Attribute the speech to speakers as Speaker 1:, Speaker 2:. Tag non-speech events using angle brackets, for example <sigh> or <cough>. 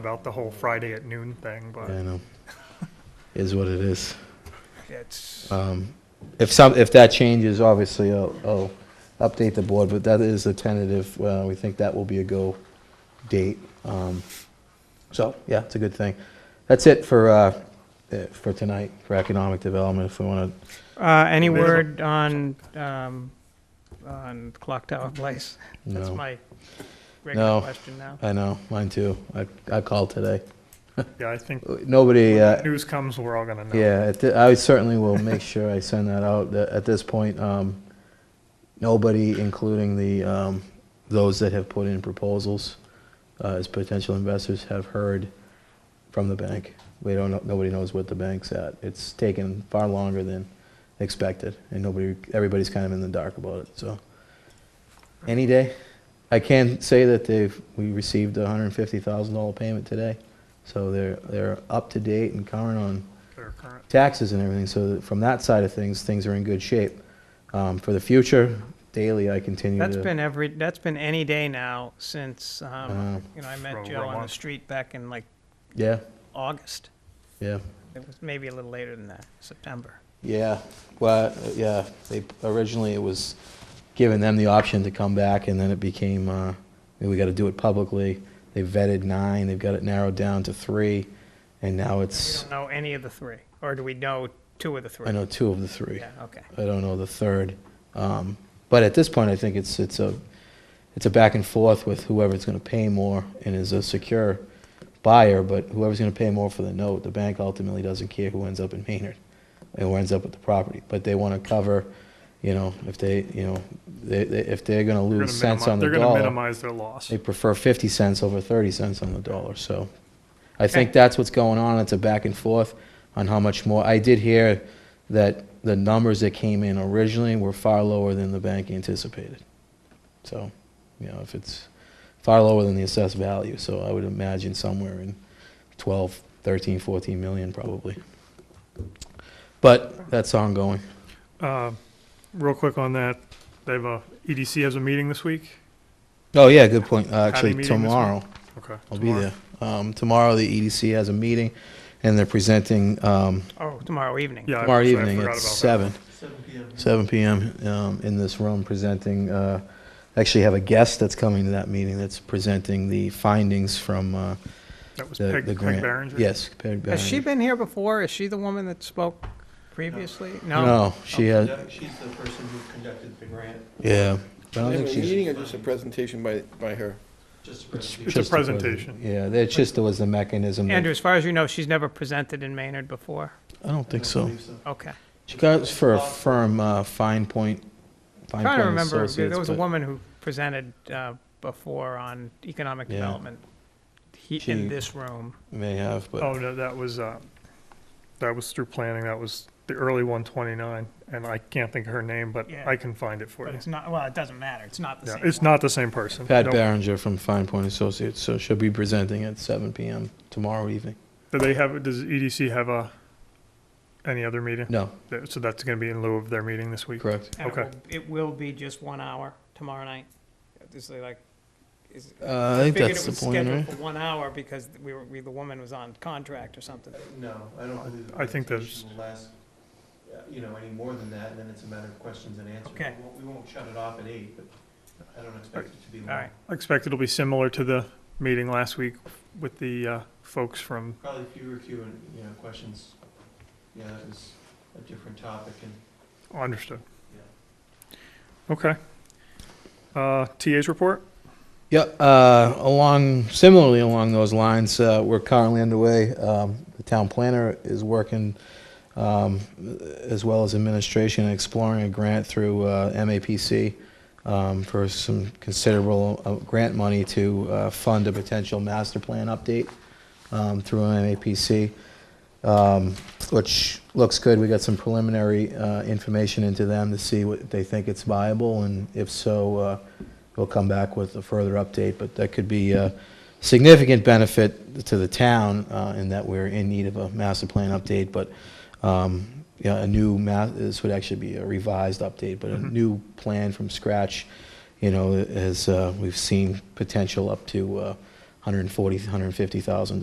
Speaker 1: about the whole Friday at noon thing,
Speaker 2: Yeah, I
Speaker 1: but
Speaker 2: know. <laughs> Is what it is.
Speaker 1: it's,
Speaker 2: Um, If some, if that changes, obviously, I'll, I'll update the board, but that is a tentative, uh, we think that will be a go date. Um, So, yeah, it's a good thing. That's it for, uh, uh, for tonight, for economic development, if we want to,
Speaker 3: Uh, any
Speaker 1: There's a-
Speaker 3: word on, um, on Clock Tower Place? That's
Speaker 2: no.
Speaker 3: my regular
Speaker 2: No.
Speaker 3: question now.
Speaker 2: I know, mine too. I, I called today.
Speaker 1: yeah, I think
Speaker 2: Nobody, uh,
Speaker 1: news comes, we're all gonna know.
Speaker 2: Yeah, at thi- I certainly will make sure I send that out. Th- At this point, um, nobody, including the, um, those that have put in proposals uh, as potential investors, have heard from the bank. We don't, know. nobody knows what the bank's at. It's taken far longer than expected, and nobody, everybody's kind of in the dark about it, so. Any day. I can say that they've, we received a $150,000 payment today, so they're, they're up to date and current on
Speaker 1: They're current.
Speaker 2: taxes and everything, so that from that side of things, things are in good shape. Um, For the future, daily, I continue to. uh,
Speaker 3: That's been every, that's been any day now since,
Speaker 2: Wow.
Speaker 3: um, you know, I
Speaker 1: For
Speaker 3: met
Speaker 1: over
Speaker 3: Joe
Speaker 1: a
Speaker 3: on the
Speaker 1: month.
Speaker 3: street back in like
Speaker 2: Yeah,
Speaker 3: August.
Speaker 2: yeah,
Speaker 3: It was maybe a little later than that, September.
Speaker 2: yeah, well, yeah, they, originally it was giving them the option to come back, and then it became, uh, we gotta do it publicly. They vetted nine, they've got it narrowed down to three, and now
Speaker 3: We
Speaker 2: it's,
Speaker 3: don't know any of the three, or do we know two of the three?
Speaker 2: I know two of the three.
Speaker 3: Yeah, okay.
Speaker 2: I don't know the third. Um, but at this point, I think it's it's a it's a back and forth with whoever's going to pay more and is a secure buyer. But whoever's going to pay more for the note, the bank ultimately doesn't care who ends up in Maynard and who ends up with the property. But they want to cover, you know, if they you know they, they, if they're going to
Speaker 1: They're
Speaker 2: lose
Speaker 1: gonna
Speaker 2: cents on
Speaker 1: minimi-
Speaker 2: the
Speaker 1: They're gonna
Speaker 2: dollar,
Speaker 1: minimize their loss.
Speaker 2: they prefer 50 cents over 30 cents on the dollar. So I think that's what's going on. It's a back and forth on how much more. I did hear that the numbers that came in originally were far lower than the bank anticipated. So, you know, if it's far lower than the assessed value, so I would imagine somewhere in 12, 13, 14 million probably. But that's ongoing.
Speaker 1: Uh, real quick on that, they have a, EDC has a meeting this week?
Speaker 2: Oh, yeah, good point. Uh,
Speaker 1: meeting
Speaker 2: Actually,
Speaker 1: this week?
Speaker 2: tomorrow.
Speaker 1: Okay.
Speaker 2: I'll be
Speaker 1: tomorrow.
Speaker 2: there. Um, tomorrow, the EDC has a meeting, and they're presenting, um,
Speaker 3: Oh, tomorrow evening.
Speaker 1: Yeah. I-
Speaker 2: tomorrow
Speaker 1: sorry, I
Speaker 2: evening
Speaker 1: forgot
Speaker 2: at
Speaker 1: about that.
Speaker 2: seven. Seven PM, um, in this room, presenting, uh, actually have a guest that's coming to that meeting that's presenting the findings from, uh,
Speaker 1: That was
Speaker 2: the,
Speaker 1: Peg,
Speaker 2: the
Speaker 1: Peg
Speaker 2: grant.
Speaker 1: Barringer?
Speaker 2: Yes, Peg Barringer.
Speaker 3: Has she been here before? Is she the woman that spoke previously? No?
Speaker 2: No, she has,
Speaker 4: No, She's the person who conducted the grant,
Speaker 2: yeah. But I don't
Speaker 5: Is
Speaker 2: think
Speaker 5: it a
Speaker 2: she's.
Speaker 5: meeting or just a presentation by, by her?
Speaker 4: just a
Speaker 1: It's
Speaker 4: presentation.
Speaker 1: a
Speaker 2: just present-
Speaker 1: presentation.
Speaker 2: Yeah, that just was the mechanism. that-
Speaker 3: Andrew, as far as you know, she's never presented in Maynard before?
Speaker 2: I don't think so.
Speaker 4: believe
Speaker 3: Okay.
Speaker 2: She got it for a firm, uh, Fine Point, Fine
Speaker 3: Trying
Speaker 2: Point
Speaker 3: to remember,
Speaker 2: Associates,
Speaker 3: there was a
Speaker 2: but-
Speaker 3: woman who presented uh, before on economic
Speaker 2: Yeah.
Speaker 3: development he-
Speaker 2: She-
Speaker 3: in this room.
Speaker 2: May have, but.
Speaker 1: Oh, no, that was, uh, that was through planning, that was the early one twenty-nine, and I can't think of her name, but
Speaker 3: Yeah.
Speaker 1: I can find it for
Speaker 3: But
Speaker 1: you.
Speaker 3: it's not, well, it doesn't matter. It's not the
Speaker 1: Yeah,
Speaker 3: same.
Speaker 1: it's not the same person.
Speaker 2: Pat
Speaker 1: Nope.
Speaker 2: Barringer from Fine Point Associates, so she'll be presenting at seven PM tomorrow evening.
Speaker 1: Do they have, does EDC have a, any other meeting?
Speaker 2: No,
Speaker 1: Th- So that's gonna be in lieu of their meeting this week?
Speaker 2: correct.
Speaker 3: And it
Speaker 1: Okay.
Speaker 3: will- It will be just one hour tomorrow night. This is like, is.
Speaker 2: Uh, I think
Speaker 3: figured
Speaker 2: that's
Speaker 3: it
Speaker 2: the
Speaker 3: was
Speaker 2: point,
Speaker 3: scheduled
Speaker 2: right?
Speaker 3: for one hour because we were, we, the woman was on contract or something.
Speaker 4: No, I don't believe. the
Speaker 1: I think
Speaker 4: presentation will last, uh, you know, any more than that, and then it's a matter of questions and answers.
Speaker 3: Okay.
Speaker 4: We won't- We won't shut it off at eight, but I don't expect it to be long.
Speaker 3: All right.
Speaker 1: I expect it'll be similar to the meeting last week with the uh, folks from,
Speaker 4: Probably fewer Q and, you know, questions. Yeah, that was a different topic and,
Speaker 1: oh, understood.
Speaker 4: yeah.
Speaker 1: Okay. Uh, TA's report?
Speaker 2: Yeah, uh, along, similarly along those lines, uh, we're currently underway. Um, The town planner is working, um, as well as administration, exploring a grant through uh, MAPC um, for some considerable uh, grant money to uh, fund a potential master plan update um, through MAPC, um, which looks good. We got some preliminary uh, information into them to see what they think it's viable, and if so, uh, we'll come back with a further update. But that could be a significant benefit to the town uh, in that we're in need of a master plan update, but um, yeah, a new ma, this would actually be a revised update, but a
Speaker 1: Mhm.
Speaker 2: new plan from scratch, you know, as uh, we've seen potential up to uh, 140, 150,000